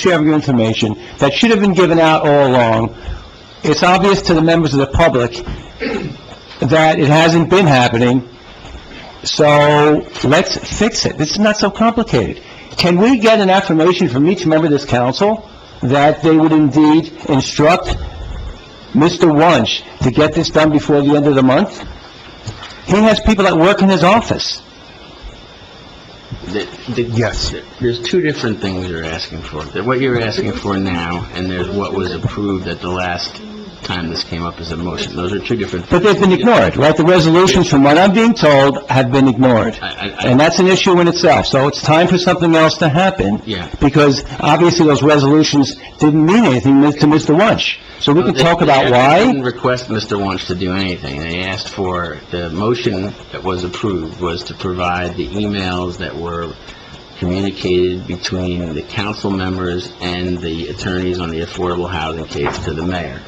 sharing of information that should have been given out all along. It's obvious to the members of the public that it hasn't been happening, so let's fix it. This is not so complicated. Can we get an affirmation from each member of this council that they would indeed instruct Mr. Wunsch to get this done before the end of the month? He has people that work in his office. Yes. There's two different things you're asking for. There- What you're asking for now, and there's what was approved at the last time this came up as a motion. Those are two different But things. they've been ignored, right? The resolutions, from what I'm being told, have been ignored. I- I- I- And that's an issue in itself, so it's time for something else to happen. Yeah. Because obviously those resolutions didn't mean anything to Mr. Wunsch. So we can They- talk they about actually why, didn't request Mr. Wunsch to do anything. They asked for, the motion that was approved was to provide the emails that were communicated between the council members and the attorneys on the affordable housing case to the mayor.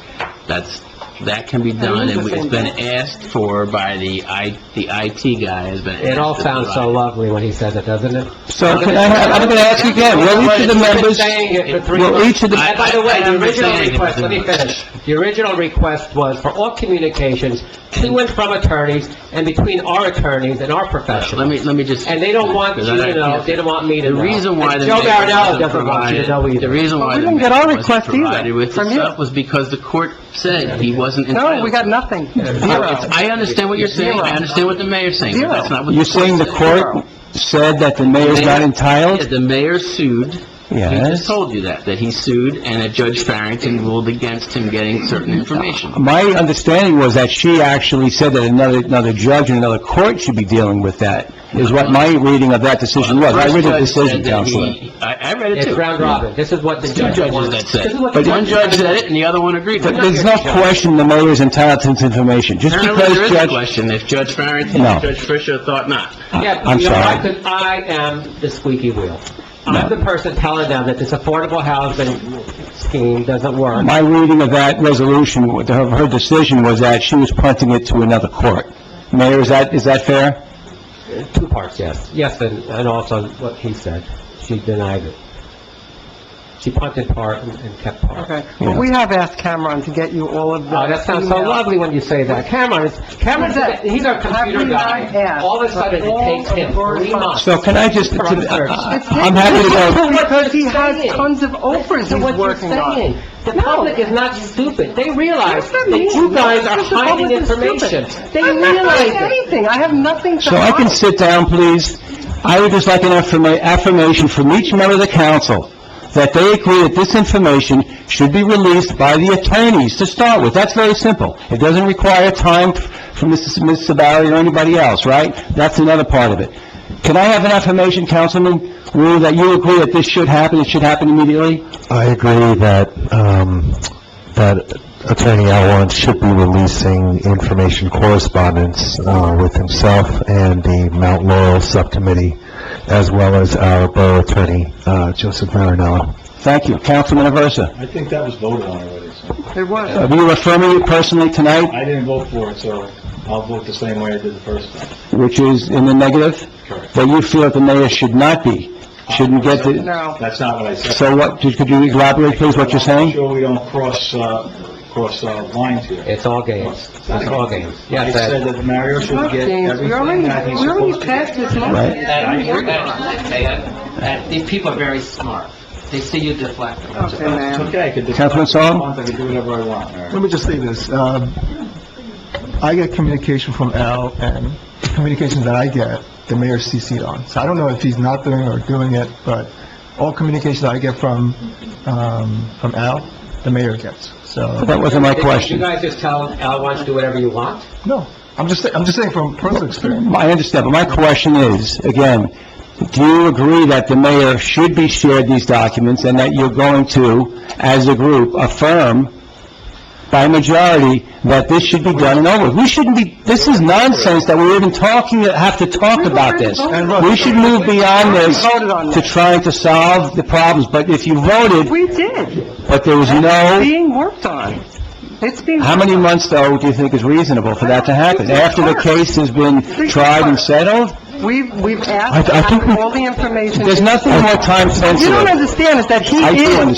That's, that can be done, and it's been asked for by the I, the IT guy has been asked. It all to sounds so provide. lovely when he says it, doesn't it? so can I- I'm going to ask you again, will each of the members, will each of the... By the way, I- I the original understand it, request, but- let me finish. The original request was for all communications to and from attorneys and between our attorneys and our Let profession. me, let me just... And they don't want you to know, they don't want me to know. The reason why And the Joe mayor wasn't Marinello doesn't want you to provided- know The either. reason why we the didn't get our mayor wasn't request either, provided with the from you. stuff was because the court said he wasn't entitled. No, we got nothing. It's- Zero. I understand what you're saying, I Zero. understand what the mayor's saying, but Zero. that's not what the You're court saying the said. court said that the mayor's not Yeah, entitled? The mayor sued. He just Yes. told you that, that he sued, and that Judge Farrington ruled against him getting certain information. My understanding was that she actually said that another, another judge in another court should be dealing with that, is what my reading of that decision was. I read the Uh-huh. First judge decision, said that he- Counselor. I, I read it It's too. round robin, this is what the Two judge judges wants. that said. This is what the But one judge judge said it, and the other one agreed with But it. there's no question the mayor is entitled to this information, just Apparently, there because is a Judge... question if Judge Farrington No. and Judge Fisher thought not. Yeah, I'm but you know, sorry. why? 'Cause I am the squeaky wheel. I'm the person telling them that this affordable housing scheme doesn't work. My reading of that resolution, of her decision, was that she was punting it to another court. Mayor, is that, is that fair? Two parts, yes. Yes, and, and also what he said. She denied it. She punted part and and kept part. Okay, well, we have asked Cameron to get you all of the... Oh, that sounds so emails. lovely when you say that. Cameron is, Cameron's, a- he's our computer Have we not guy. asked All of a sudden, for all it takes him of your three months. So can I just, For our service. I'm happy to go, Because he Saying. has tons of offers So he's what you're working on. saying, the public is not stupid. They realize What does that that mean? you guys are Because the hiding public is stupid. information. They I'm not realize hiding it. anything, I have nothing to so I hide. can sit down, please. I would just like an affirma- affirmation from each member of the council that they agree that this information should be released by the attorneys to start with. That's very simple. It doesn't require time from Mrs. Ms. Sabari or anybody else, right? That's another part of it. Can I have an affirmation, Councilman Wu, that you agree that this should happen, it should happen immediately? I agree that, um, that Attorney Alwan should be releasing information correspondence, uh, with himself and the Mount Laurel Subcommittee, as well as our Borough Attorney, uh, Joseph Marinello. Thank you. Councilman Aversa, I think that was voted on already, so It was. are you affirming it personally tonight, I didn't vote for it, so I'll vote the same way I did the first time. which is in the negative? Correct. That you feel that the mayor should not be, shouldn't get the... No. That's not what I said. So what, could you elaborate, please, what you're I'm saying? sure we don't cross, uh, cross uh, lines here. It's all games. It's all games. Yes, I that- said that Mario should get James, everything we already, that he's we already supposed to passed get. this motion. Right. These people are very smart. They see you deflect. Okay, It's ma'am. okay, I could... Councilman Song? I could do whatever I want, Mario. Let me just say this. Um, I get communication from Al, and communications that I get, the mayor CC'd on. So I don't know if he's not doing it or doing it, but all communications that I get from, um, from Al, the mayor gets. So, That wasn't my Did question. You guys just tell Al wants to do whatever you want? no, I'm just, I'm just saying from personal experience. I understand, but my question is, again, do you agree that the mayor should be shared these documents and that you're going to, as a group, affirm by majority that this should be done and over? with? We shouldn't be, this is nonsense that we're even talking, have to talk about this. And look- We should move beyond this Voted on to that. trying to solve the problems, but if you voted, We did. but there was It's no, being worked on. It's being... how many months, though, do you think is reasonable for that to happen? After the case has been tried and settled? We've, we've I- I asked think we- for all the information. There's nothing more You time-sensitive. don't understand is that he I do is understand.